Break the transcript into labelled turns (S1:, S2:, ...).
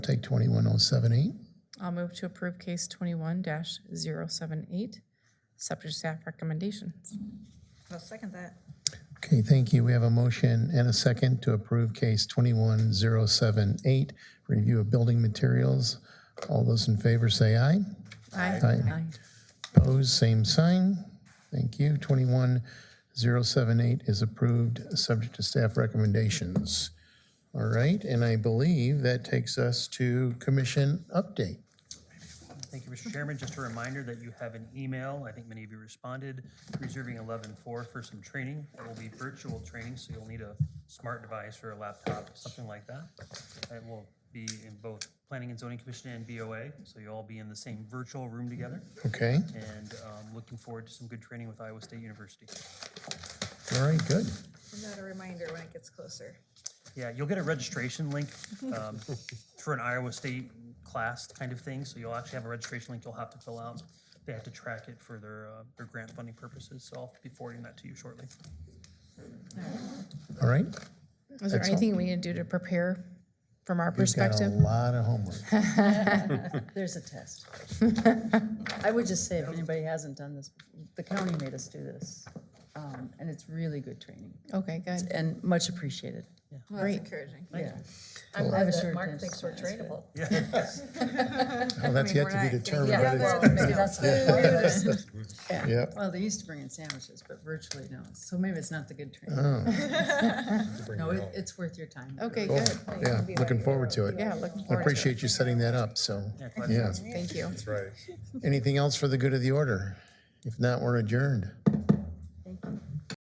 S1: Take 21078.
S2: I'll move to approve case twenty-one 78 subject to staff recommendations.
S3: I'll second that.
S1: Okay, thank you. We have a motion and a second to approve case 21078, review of building materials. All those in favor say aye.
S2: Aye.
S1: Opposed, same sign. Thank you. 21078 is approved, subject to staff recommendations. All right, and I believe that takes us to commission update.
S4: Thank you, Mr. Chairman. Just a reminder that you have an email, I think many of you responded, reserving 11-4 for some training. It will be virtual training, so you'll need a smart device or a laptop, something like that. It will be in both Planning and Zoning Commission and BOA, so you'll all be in the same virtual room together.
S1: Okay,
S4: And um, looking forward to some good training with Iowa State University.
S1: all right, good.
S3: Send out a reminder when it gets closer.
S4: Yeah, you'll get a registration link um, for an Iowa State class kind of thing, so you'll actually have a registration link you'll have to fill out. They have to track it for their, uh, their grant funding purposes, so I'll be forwarding that to you shortly.
S1: All right.
S2: Is there anything we need to do to prepare from our perspective?
S1: Got a lot of homework.
S5: There's a test. I would just say, if anybody hasn't done this, the county made us do this, um, and it's really good training
S2: Okay, good.
S5: and much appreciated.
S3: Well, that's encouraging.
S5: Yeah.
S3: I'm
S5: I have
S3: glad
S5: a
S3: that
S5: short
S3: Mark
S5: attention
S3: thinks we're
S5: span,
S3: trainable.
S1: Well, that's yet to be determined, but it's- yep.
S5: Well, they used to bring in sandwiches, but virtually no. So maybe it's not the good training. No, it, it's worth your time.
S2: Okay,
S1: Cool.
S2: good.
S1: Yeah, looking forward to it.
S2: Yeah, looking
S1: I
S2: forward to it.
S1: appreciate you setting that up, so,
S4: glad
S1: yeah.
S2: Thank you.
S6: That's right.
S1: Anything else for the good of the order? If not, we're adjourned.